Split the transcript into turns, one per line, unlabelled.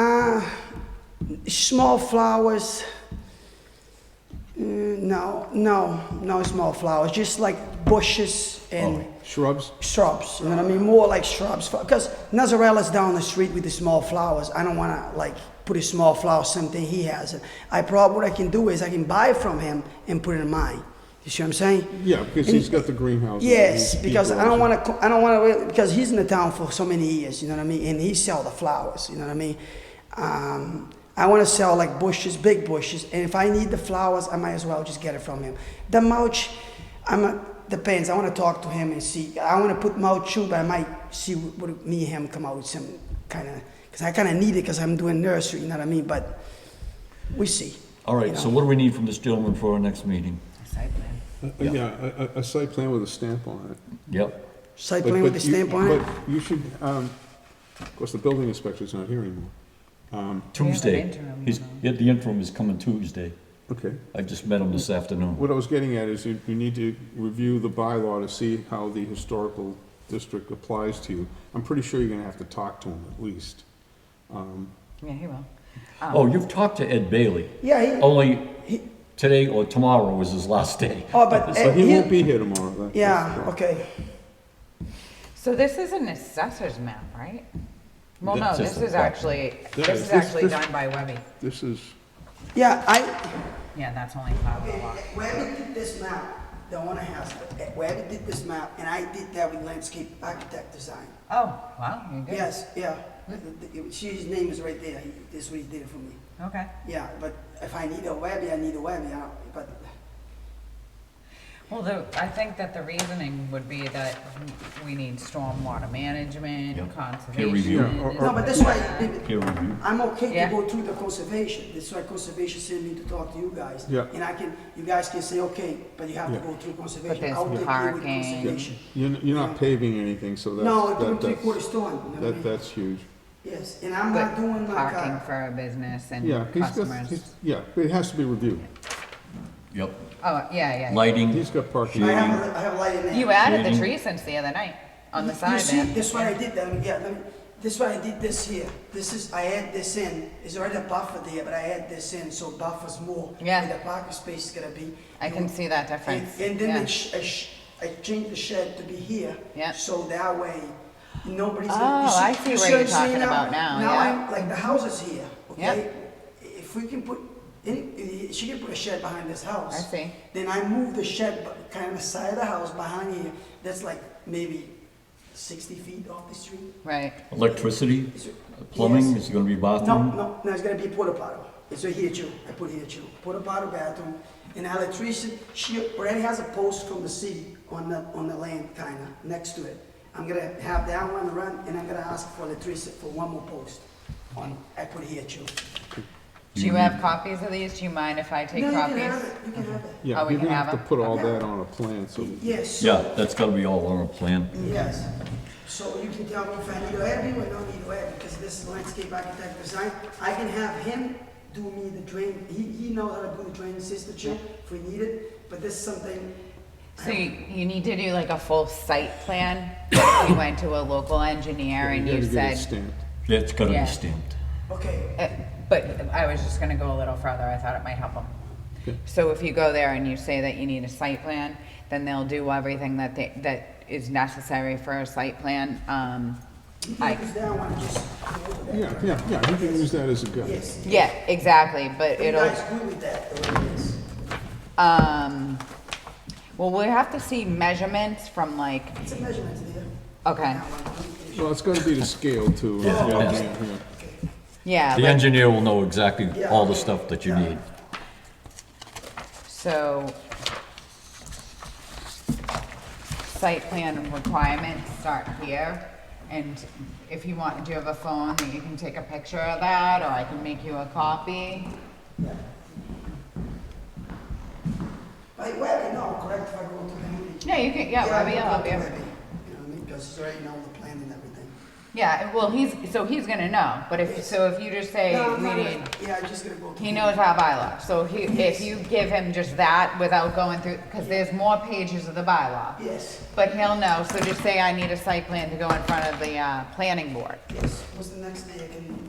Ah, small flowers. uh, No, no, no small flowers, just like bushes and
Shrubs?
Oh, shrubs, you know what I mean? More like shrubs, because Nazarella's down the street with the small flowers. I don't want to like put a small flower something he has. I probably what I can do is I can buy from him and put it in mine. You see what I'm saying?
Yeah, because he's got the greenhouse.
Yes, because I don't want to. I don't want to. Really, because he's in the town for so many years, you know what I mean. And he sell the flowers, you know what I mean. Um, I want to sell like bushes, big bushes, and if I need the flowers, I might as well just get it from him. The mulch, I'm a, depends. I want to talk to him and see. I want to put mulch too, but I might see what, what me and him come out with some kind of because I kind of need it because I'm doing nursery, you know what I mean. But we see.
All right, so what do we need from this gentleman for our next meeting?
Site plan.
to. Uh, Yeah, a- a, a site plan with a stamp on it.
Yep,
Site
But-
plan with
but
the
you-
stamp on it.
But you should, um, of course, the building inspector's not here anymore.
Tuesday.
interim,
He's,
you know.
yeah, the interim is coming Tuesday.
Okay.
I just met him
Hmm.
this afternoon.
What I was getting at is you, you need to review the bylaw to see how the historical district applies to you. I'm pretty sure you're gonna have to talk to him at least.
Yeah, he will.
Oh, you've talked to Ed Bailey.
Yeah. He,
Oh,
Only today or tomorrow was his last day.
oh, but uh,
But he
he-
won't be here tomorrow. that-
Yeah.
that's-
Okay.
So this is an assessor's map, right? Well, no,
That's just
this
a
is
fact.
actually,
That
this
is-
is
this-
actually
this-
done by Webby.
This is,
Yeah, I.
Yeah, that's only five oh one.
Whoever did this map, the one I have, whoever did this map, and I did that with landscape architect design.
Oh, wow, you good.
Yes, yeah. The- the- She's name is right there. He- This is what he did for me.
Okay.
Yeah, but if I need a Webby, I need a Webby, I don't- but,
Well, the, I think that the reasoning would be that we need stormwater
Yeah.
management,
Peer review.
Yeah, or-
conservation.
no, but that's why,
Peer review.
I'm okay
Yeah.
to go through the conservation. That's why conservation sent me to talk to you guys.
Yeah.
And I can, you guys can say, okay, but you have to
Yeah.
go through conservation.
there's
I'll take you with
parking.
conservation.
you're, n- you're not paving anything, so that's.
No,
that-
two and three
that's-
quarter stone, you know what I
That,
mean?
that's huge.
Yes, and I'm
But
not doing like,
parking
uh,
for a business
Yeah,
and
he's got, he's,
customers.
yeah, it has to be reviewed.
Yep.
Oh, yeah, yeah.
Lighting,
He's got
I
parking.
have, a- I have light in there.
You added the
Shading.
tree since the other night on the
You-
side
You see,
there.
this why I did that, yeah, let me, this why I did this here, this is, I add this in, it's already a buffer there, but I add this in, so buffers more.
Yeah.
Where the parking space is gonna be.
I can see that difference.
And- And then
yeah.
I sh- I sh- I changed the shed to be here.
Yeah.
So that way, nobody's.
Oh, I see
you
what
what
you're
I'm saying
talking about now,
Now,
yeah.
I'm- like, the house is here,
Yeah.
okay? If we can put, any- she can put a shed behind this house.
I see.
Then I move the shed bu- kind of side of the house behind here, that's like maybe sixty feet off the street.
Right.
electricity,
It's-
plumbing,
yes.
is it gonna be
No,
bathroom?
no, no, it's gonna be porta potty. It's right here too, I put here too. Porta potty bathroom, and electrician, she already has a post from the city on the, on the land kinda, next to it. I'm gonna have that one run, and I'm gonna ask for electricity for one more post on, I put here too.
Do
Mm-hmm.
you have copies of these? Do you mind if I take
No, you can
copies?
have it, you can have it.
Oh,
Yeah,
we
you're
can
gonna
have
have to
a-
put all
okay.
that on a plan, so.
Yes, so-
Yeah, that's gotta be all on a plan.
Yes, so you can tell me if I need to add me or don't need to add, because this is landscape architect design. I can have him do me the drain, he, he knows how to do the drain system check if we need it, but this is something. I
So
don't-
you, you need to do like a full site plan. you went to a local engineer and
You
you
gotta get it
said,
stamped.
That's gotta
Yeah.
be stamped.
Okay,
Uh, but I was just gonna go a little further. I thought it might help
Okay.
them. So if you go there and you say that you need a site plan, then they'll do everything that they, that is necessary for a site plan. Um,
you can
I,
use that one, just go over that.
Yeah, yeah, yeah, you can use that as a guide.
Yes,
yeah, exactly, but
you
it'll.
guys agree with that, the way it is.
Um, well, we'll have to see measurements from like,
It's a measurement there.
okay,
That one.
Well, it's gotta be to scale too.
Yeah.
Yeah,
Yeah.
yeah, yeah.
yeah,
The
like-
engineer will know exactly all the stuff that you need.
so. Site plan requirements start here, and if you want, do you have a phone that you can take a picture of that, or I can make you a copy?
Like, well, no, correct, if I go to him.
No, you can, yeah, Robbie,
I
I'll
go
help
to Webby,
you.
You know what I mean, because he's already know the plan and everything.
Yeah, well, he's, so he's gonna know, but if, so if you just say,
No, I'm
we
not-
need.
Yeah, I'm just gonna go to.
He
him.
knows our bylaw, so he, if you give him just that without going through, because there's more pages of the bylaw.
Yes.
But he'll know, so just say I need a site plan to go in front of the, uh, planning board.
Yes, what's the next day I can